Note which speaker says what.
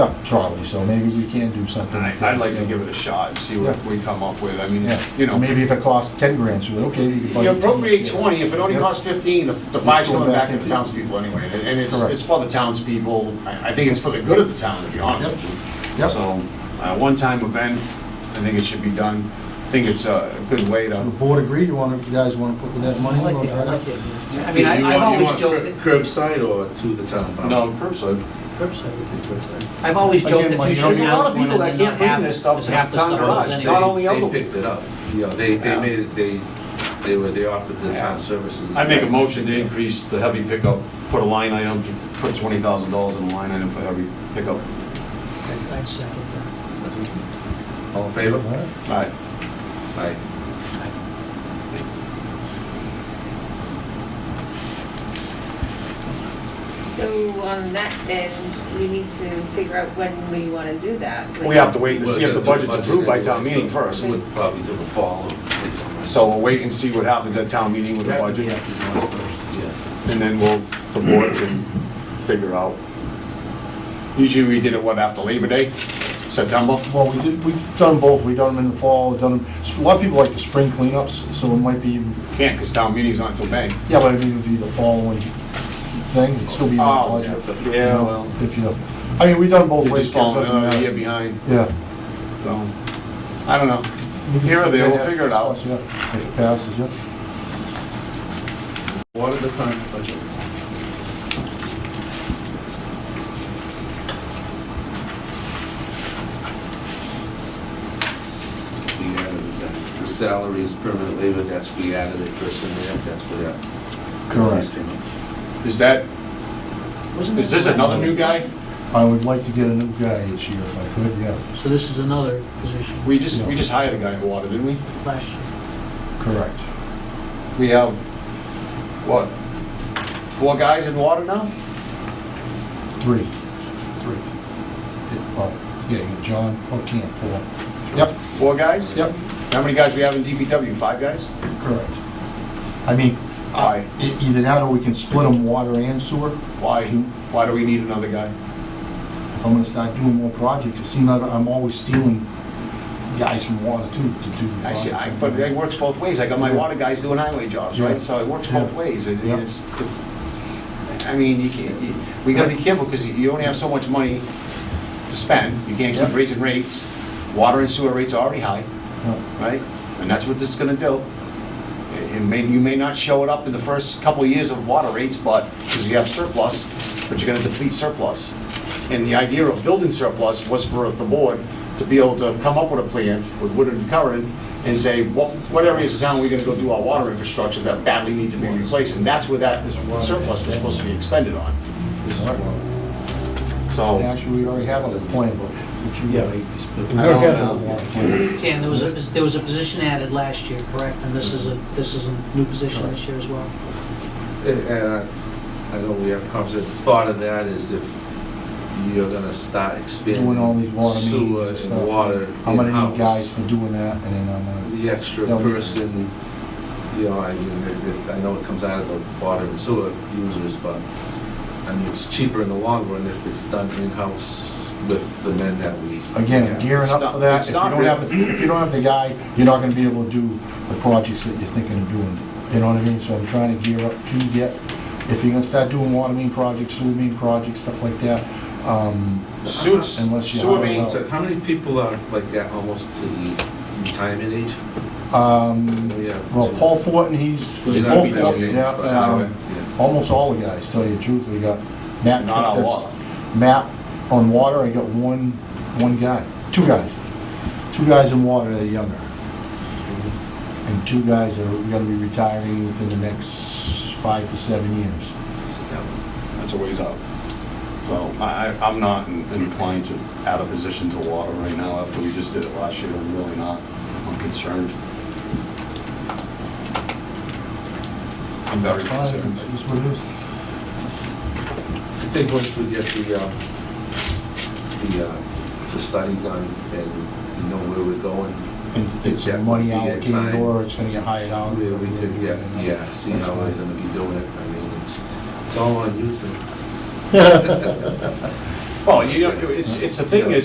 Speaker 1: up trolley, so maybe we can do something.
Speaker 2: And I- I'd like to give it a shot and see what we come up with. I mean,
Speaker 1: Yeah,
Speaker 2: you know,
Speaker 1: Maybe if it costs ten grand, so, okay. you can
Speaker 2: if
Speaker 1: budget-
Speaker 2: you appropriate 20, if it only
Speaker 1: Yeah.
Speaker 2: costs 15, the the
Speaker 1: Let's
Speaker 2: five's
Speaker 1: go
Speaker 2: coming
Speaker 1: back
Speaker 2: back to the
Speaker 1: into-
Speaker 2: townspeople anyway. And and it's,
Speaker 1: Correct.
Speaker 2: it's for the townspeople. I I think it's for the good of the town, to be honest
Speaker 1: Yep.
Speaker 2: with you.
Speaker 1: Yep.
Speaker 2: So, uh, one-time event, I think it should be done. I think it's a good way
Speaker 1: So the
Speaker 2: to,
Speaker 1: board agreed, you want, you guys want to put that money?
Speaker 3: I like
Speaker 1: we'll
Speaker 3: the-
Speaker 1: try
Speaker 3: I
Speaker 1: that.
Speaker 3: like the- I mean, I-
Speaker 4: You
Speaker 3: I've
Speaker 4: want- you
Speaker 3: always
Speaker 4: want
Speaker 3: joked,
Speaker 4: cur- Curbside or to the town? pump?
Speaker 2: no, curbside.
Speaker 3: that-
Speaker 4: Curbside.
Speaker 3: I've always
Speaker 1: Again,
Speaker 3: joked that
Speaker 1: my-
Speaker 3: you
Speaker 1: there's a
Speaker 3: should
Speaker 2: lot of
Speaker 3: announce one
Speaker 2: people
Speaker 3: and
Speaker 2: that
Speaker 3: then
Speaker 2: can't
Speaker 3: not
Speaker 2: bring
Speaker 3: have
Speaker 2: this stuff
Speaker 3: because half
Speaker 2: to
Speaker 3: the
Speaker 2: town
Speaker 3: stuff
Speaker 2: garage.
Speaker 3: goes
Speaker 2: Not
Speaker 3: anyway.
Speaker 2: all- only
Speaker 4: They-
Speaker 2: Elbert.
Speaker 4: They picked it up. Yeah, they, they
Speaker 2: Yeah.
Speaker 4: made it, they, they were, they offered the town services.
Speaker 2: I make a motion to increase the heavy pickup, put a line item, put $20,000 in a line item for heavy pickup.
Speaker 3: I'd second that.
Speaker 4: All in favor?
Speaker 2: All right.
Speaker 4: Aye.
Speaker 5: So on that end, we need to figure out when we want to do that.
Speaker 2: We have to wait and see if the budget's approved by town meeting first.
Speaker 4: So it Would probably till the fall. or something.
Speaker 2: So we'll wait and see what happens at town meeting with the budget,
Speaker 4: Yeah.
Speaker 2: and then we'll, the board can figure out. Usually we did it, what, after Labor Day, September?
Speaker 1: Well, we did, we've done both, we've done them in the fall, we've done, them- a lot of people like the spring cleanups, so it might be,
Speaker 2: Can't, because town meeting's not until May.
Speaker 1: yeah, but I mean, it'd be the following thing, it'd still be in the
Speaker 2: Oh,
Speaker 1: budget.
Speaker 2: yeah,
Speaker 1: you know,
Speaker 2: well.
Speaker 1: If you, I mean, we've done both
Speaker 2: You're
Speaker 1: ways.
Speaker 2: just uh,
Speaker 1: it doesn't
Speaker 2: falling another
Speaker 1: matter.
Speaker 2: year behind,
Speaker 1: Yeah.
Speaker 2: so, I don't know. Here or there, we'll figure it out.
Speaker 1: Yeah, If it passes, yeah.
Speaker 4: What are the current budget? We added that. The salary is permanent labor, that's, we added a person there, that's where that.
Speaker 1: Correct.
Speaker 4: came up.
Speaker 2: Is that,
Speaker 3: Wasn't
Speaker 2: is
Speaker 3: that
Speaker 2: this
Speaker 3: last
Speaker 2: another
Speaker 3: year?
Speaker 2: new guy?
Speaker 1: I would like to get a new guy this year if I could, yeah,
Speaker 3: So this is another position
Speaker 2: We just, we just hired a guy in water, didn't we?
Speaker 3: last year.
Speaker 1: correct.
Speaker 2: We have, what, four guys in water now?
Speaker 1: Three. Three. Oh, yeah, you got John, oh, can't, four. Yep,
Speaker 2: Four guys?
Speaker 1: yep,
Speaker 2: How many guys we have in DPW? Five guys?
Speaker 1: correct. I mean,
Speaker 2: Why?
Speaker 1: e- either that or we can split them water and sewer.
Speaker 2: Why? Why do we need another guy?
Speaker 1: If I'm gonna start doing more projects, it seems like I'm always stealing guys from water too to do. the
Speaker 2: I see, I,
Speaker 1: projects.
Speaker 2: but it works both ways. I got my water guys doing highway jobs,
Speaker 1: Yeah.
Speaker 2: right? So it works both
Speaker 1: Yeah.
Speaker 2: ways. It-
Speaker 1: Yeah.
Speaker 2: It's, I mean, you can't, you- we gotta be careful because you only have so much money to spend. You can't
Speaker 1: Yeah.
Speaker 2: keep raising rates. Water and sewer rates are already high,
Speaker 1: Yeah.
Speaker 2: right? And that's what this is gonna do. It it may, you may not show it up in the first couple of years of water rates, but, because you have surplus, but you're gonna deplete surplus. And the idea of building surplus was for the board to be able to come up with a plan with Woodard and Curran and say, what, what areas of town are we gonna go do our water infrastructure that badly needs to be replaced? And that's where that surplus was supposed to be expended on.
Speaker 4: This is one.
Speaker 1: And
Speaker 2: So,
Speaker 1: Actually, we already have a plan, but. but you-
Speaker 2: I don't
Speaker 1: Yeah.
Speaker 3: Dan, there was a, there was a position added last year, correct? And this is a, this is a new position this year as well?
Speaker 4: And- And I- I know we have conversation, the thought of that is if you're gonna start expanding.
Speaker 1: Doing all these water mains and
Speaker 4: Sewer
Speaker 1: stuff.
Speaker 4: and water
Speaker 1: I'm gonna need
Speaker 4: in-house.
Speaker 1: guys for doing that, and then I'm gonna,
Speaker 4: the extra
Speaker 1: Tell me.
Speaker 4: person, you know, I mean, it- it- I know it comes out of the water and sewer users, but, I mean, it's cheaper in the long run if it's done in-house with the men that we.
Speaker 1: again, gearing up for that.
Speaker 2: It's
Speaker 1: If you
Speaker 2: not-
Speaker 1: don't have, the- if you don't have the guy, you're not gonna be able to do the projects that you're thinking of doing. You know what I mean? So I'm trying to gear up to get, if you're gonna start doing water main projects, sewer main projects, stuff like that, um,
Speaker 2: sewer,
Speaker 1: Unless you
Speaker 2: sewer
Speaker 1: hire
Speaker 2: mains,
Speaker 1: out.
Speaker 4: So how many people are like at almost to the retirement age?
Speaker 1: um,
Speaker 4: We have
Speaker 1: well,
Speaker 4: two.
Speaker 1: Paul Fortin, he's,
Speaker 4: He's
Speaker 1: he's
Speaker 4: not
Speaker 1: both,
Speaker 4: being
Speaker 1: Fortin,
Speaker 4: Jennings,
Speaker 1: yeah,
Speaker 4: but-
Speaker 1: um, almost all the guys, tell you the truth. We got Matt.
Speaker 2: Not on
Speaker 1: that's-
Speaker 2: water.
Speaker 1: Matt on water, I got one, one guy, two guys. Two guys in water that are younger. And two guys that are gonna be retiring within the next five to seven years.
Speaker 2: that's a ways out. So I, I- I'm not in- inclined to add a position to water right now after we just did it last year. I'm really not. I'm concerned. I'm very
Speaker 1: That's fine,
Speaker 2: concerned.
Speaker 1: that's what it is.
Speaker 4: I think once we get the, uh, the, uh, the study done and we know where we're going,
Speaker 1: And it's
Speaker 4: Yeah,
Speaker 1: money
Speaker 4: we get
Speaker 1: allocated
Speaker 4: time.
Speaker 1: or it's gonna get hired out.
Speaker 4: We, we could, yeah, yeah, see
Speaker 1: That's
Speaker 4: how
Speaker 1: fine.
Speaker 4: we're gonna be doing it, I mean, it's, it's all on YouTube.
Speaker 2: Well, you know, it's, it's the thing is,